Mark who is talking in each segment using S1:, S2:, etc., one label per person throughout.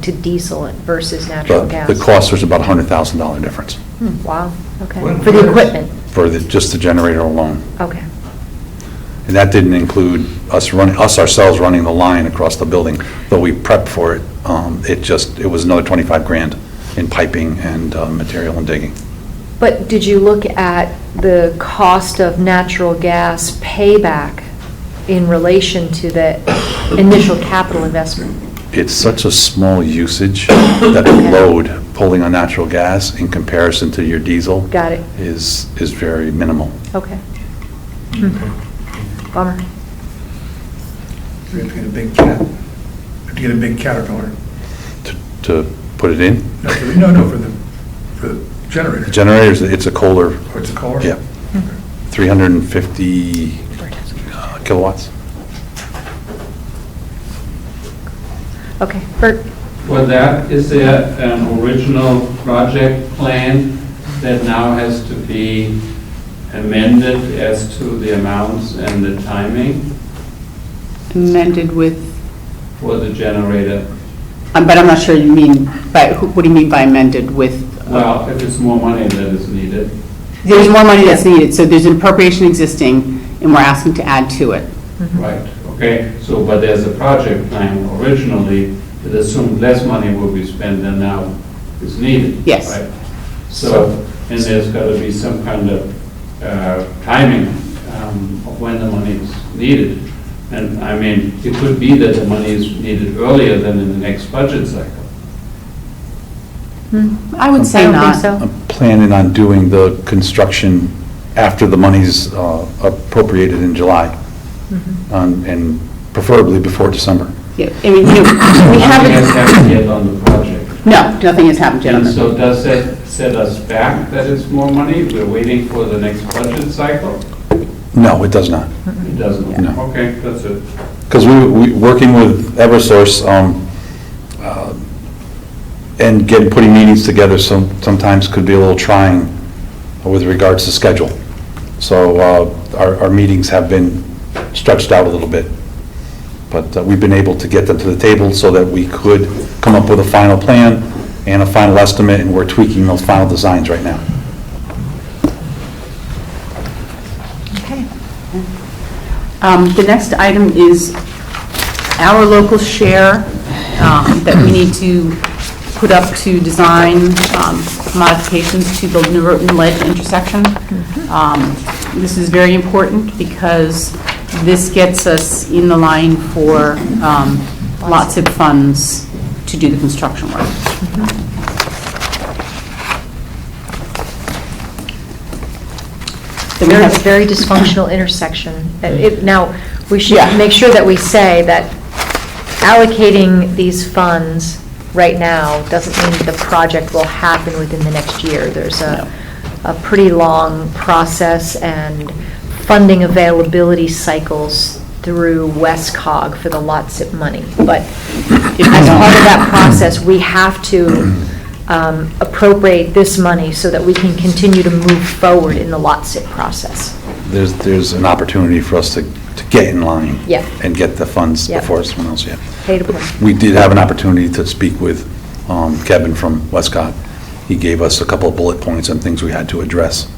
S1: to diesel versus natural
S2: But
S1: gas?
S2: the cost was about a hundred thousand dollar difference
S1: Hmm, Wow, okay.
S3: Well,
S1: For the
S3: there's-
S1: equipment,
S2: for the, just the generator alone.
S1: okay.
S2: And that didn't include us running, us ourselves running the line across the building, though we prepped for it. Um, It just, it was another 25 grand in piping and uh, material and digging.
S1: But did you look at the cost of natural gas payback in relation to the initial capital investment?
S2: It's such a small usage that the load pulling on natural gas in comparison to your diesel
S1: Got it,
S2: is, is very minimal.
S1: okay. Bummer.
S3: We have to get a big cat, we have to get a big Caterpillar.
S2: To- To put it in,
S3: No, for the- No, no, for the, for the generator.
S2: generators, it's a Kohler,
S3: Oh, it's a car?
S2: yeah, 350 uh, kilowatts.
S1: Okay, Bert,
S4: For that, is there an original project plan that now has to be amended as to the amounts and the timing
S5: amended with,
S4: for the generator?
S5: um, but I'm not sure you mean, by who- what do you mean by amended with?
S4: Well, if it's more money that is needed.
S5: There's more money that's needed, so there's an appropriation existing, and we're asking to add to it.
S4: Right, okay, so, but there's a project plan originally that assumed less money will be spent than now is needed.
S5: Yes.
S4: right? So, and there's got to be some kind of uh, timing um, of when the money is needed. And, I mean, it could be that the money is needed earlier than in the next budget cycle.
S5: I would
S1: I
S5: say
S1: don't think
S5: not.
S1: so.
S2: I'm planning on doing the construction after the money's uh, appropriated in July, Um, and preferably before December.
S5: Yeah, I mean, you know, we
S4: Nothing has
S5: haven't,
S4: happened yet on the project.
S5: no, nothing has happened,
S4: And
S5: gentlemen.
S4: so does that set us back that it's more money? We're waiting for the next budget cycle?
S2: No, it does not.
S4: It doesn't?
S2: No.
S4: Okay, that's it.
S2: Because we, we, working with Eversource, um, uh, and getting, putting meetings together some, sometimes could be a little trying with regards to schedule. So, uh, our, our meetings have been stretched out a little bit. But uh, we've been able to get them to the table so that we could come up with a final plan and a final estimate, and we're tweaking those final designs right now.
S1: Okay.
S5: Um, The next item is our local share um, that we need to put up to design um, modifications to the Norotan Ledge intersection.
S1: Mm-hmm.
S5: Um, This is very important because this gets us in the line for um, lots of funds to do the construction work.
S1: Mm-hmm.
S5: Then we
S1: Very,
S5: have-
S1: very dysfunctional intersection. And it- Now, we should
S5: Yeah.
S1: make sure that we say that allocating these funds right now doesn't mean the project will happen within the next year. There's a, a pretty long process and funding availability cycles through WestCog for the LOTSIP money. But
S5: If we
S1: as
S5: don't-
S1: part of that process, we have to um, appropriate this money so that we can continue to move forward in the LOTSIP process.
S2: There's, there's an opportunity for us to, to get in line.
S1: Yeah.
S2: And get the funds
S1: Yeah.
S2: before someone else, yeah.
S1: Pay to play.
S2: We did have an opportunity to speak with um, Kevin from Westcott. He gave us a couple of bullet points and things we had to address,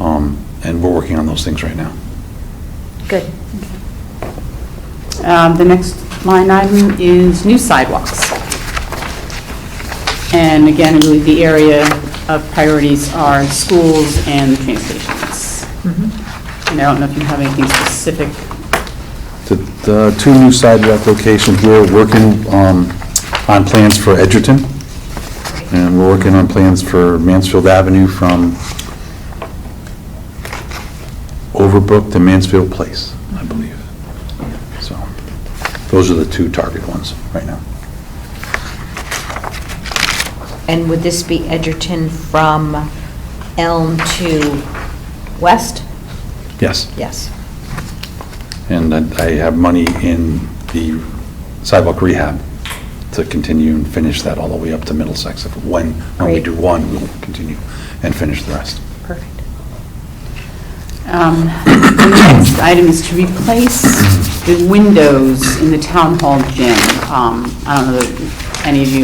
S2: Um, and we're working on those things right now.
S1: Good.
S5: Um, The next line item is new sidewalks. And again, I believe the area of priorities are schools and train stations. And I don't know if you have anything specific.
S2: The- The two new sidewalk locations, we're working um, on plans for Edgerton, and we're working on plans for Mansfield Avenue from Overbrook to Mansfield Place, I believe. So, those are the two target ones right now.
S6: And would this be Edgerton from Elm to West?
S2: Yes.
S6: Yes.
S2: And I I have money in the sidewalk rehab to continue and finish that all the way up to Middlesex. If When, when we
S6: Great.
S2: do one, we'll continue and finish the rest.
S6: Perfect.
S5: Um, The next item is to replace the windows in the town hall gym. Um, I don't know that any of you